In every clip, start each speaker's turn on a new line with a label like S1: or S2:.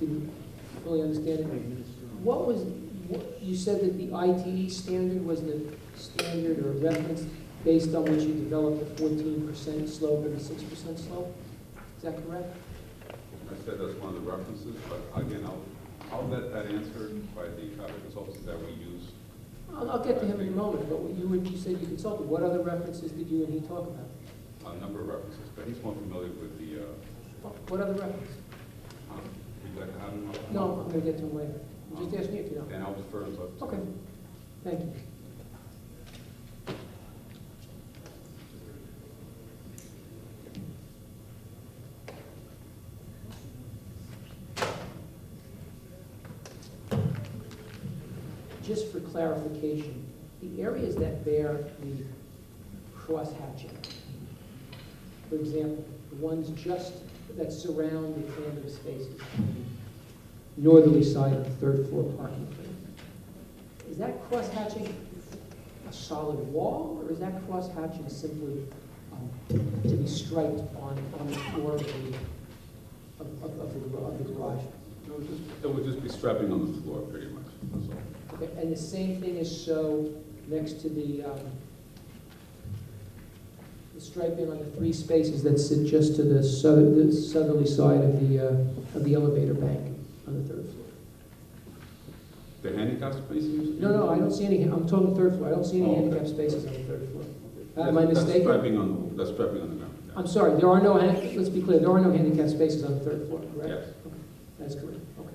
S1: didn't really understand it. What was, what- you said that the ITE standard was the standard or reference based on which you developed a fourteen percent slope and a six percent slope? Is that correct?
S2: I said that's one of the references, but again, I'll, I'll let that answer by the traffic consultants that we use.
S1: I'll, I'll get to him in a moment, but what you, were- you said you consulted, what other references did you and he talk about?
S2: A number of references, but he's more familiar with the, uh,
S1: What- What other reference?
S2: um, would you like to have him? up?
S1: No, I'm gonna get to him later. I'm just asking you if you know.
S2: Then I'll defer him up. to-
S1: Okay, thank you. Just for clarification, the areas that bear the cross hatching, for example, the ones just that surround the tandem spaces, northerly side of the third floor parking plan. Is that crosshatching a solid wall, or is that crosshatching simply um, to be striped on, on the floor of the, of, of- of the gar- of the garage?
S2: It would just, it would just be strapping on the floor, pretty much, that's all.
S1: Okay, and the same thing is so next to the, um, the striping on the three spaces that sit just to the southern, the southerly side of the, uh, of the elevator bank on the third floor?
S2: The handicap spaces?
S1: No, no, I don't see any, I'm talking third floor, I don't see any
S2: Oh, okay.
S1: handicap spaces on the third floor.
S2: That-
S1: Am I mistaken?
S2: That's strapping on, that's strapping on the ground. yeah.
S1: I'm sorry, there are no, han- let's be clear, there are no handicap spaces on the third floor, correct?
S2: Yes.
S1: That's correct, okay.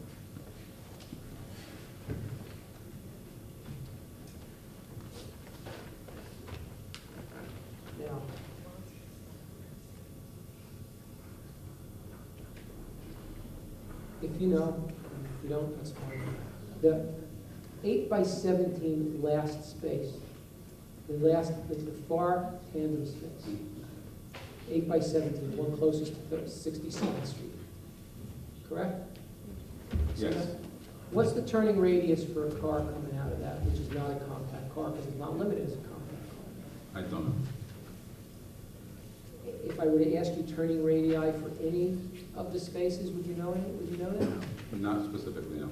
S1: Now. If you know, if you don't, that's fine. The eight by seventeen last space, the last, the the far tandem space eight by seventeen, one closest to Thir- 62nd Street, correct?
S2: Yes.
S1: What's the turning radius for a car coming out of that, which is not a compact car, because it's not limited as a compact car?
S2: I don't know.
S1: I- If I were to ask you turning radii for any of the spaces, would you know it, would you know that?
S2: Not specifically, no.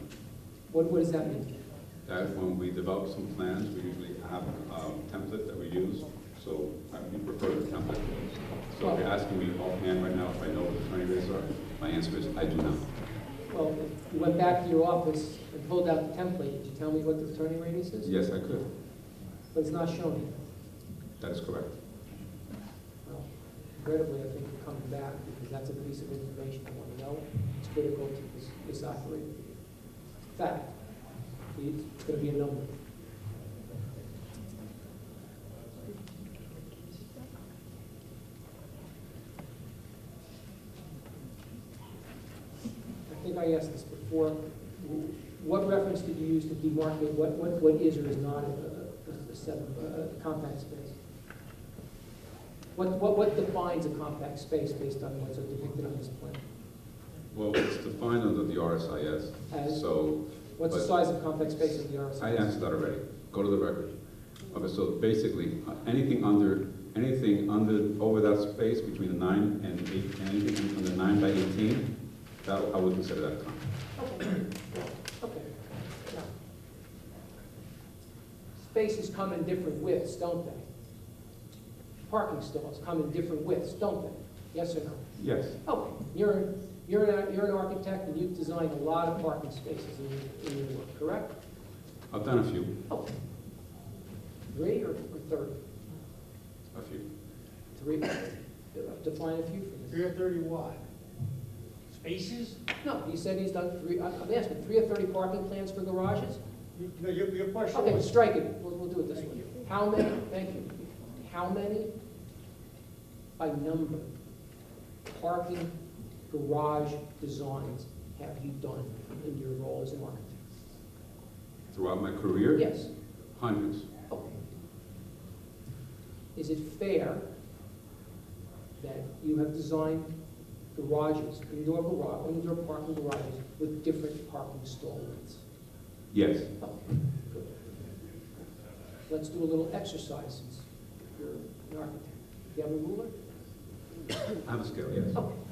S1: What, what does that mean?
S2: That when we develop some plans, we usually have a template that we use, so I would prefer the template. So if you're asking me offhand right now if I know what the attorney rates are, my answer is I do not.
S1: Well, if you went back to your office and pulled out the template, did you tell me what the turning radius is?
S2: Yes, I could.
S1: But it's not shown here.
S2: That is correct.
S1: Well, Regrettably, I think we're coming back because that's a piece of information I want to know. It's critical to this, this operating fact. It's going to be a number. I think I asked this before. Wh- What reference did you use to demarcate what, what, what is or is not a, a- a, a seven, a a compact space? What, what, what defines a compact space based on what's depicted on this plan?
S2: Well, it's defined under the RSIS,
S1: As,
S2: so
S1: what's the size of compact space in the RSI?
S2: I answered that already. Go to the record. Okay, so basically, uh, anything under, anything under, over that space between the nine and eight, anything under nine by eighteen, that, I would consider that common.
S1: Okay, okay. Now, Spaces come in different widths, don't they? Parking stalls come in different widths, don't they? Yes or no?
S2: Yes,
S1: Okay, you're, you're an, you're an architect and you've designed a lot of parking spaces in, your- in your work, correct?
S2: I've done a few,
S1: Okay. Three or or thirty?
S2: a few.
S1: Three, define a few for me.
S3: Three hundred thirty what? Spaces?
S1: No, he said he's done three, I- I'm asking, three or 30 parking plans for garages?
S3: You- No, your, your question
S1: Okay,
S3: was,
S1: strike it, we'll, we'll do it this
S3: Thank
S1: way.
S3: you.
S1: How many, thank you, how many by number parking garage designs have you done in your role as an architect?
S2: Throughout my career?
S1: Yes,
S2: Hundreds.
S1: okay. Is it fair that you have designed garages, indoor garage, indoor parking garages with different parking stall widths?
S2: Yes.
S1: Let's do a little exercise since you're an architect. Do you have a ruler?
S2: I have a scale, yes.
S1: Okay.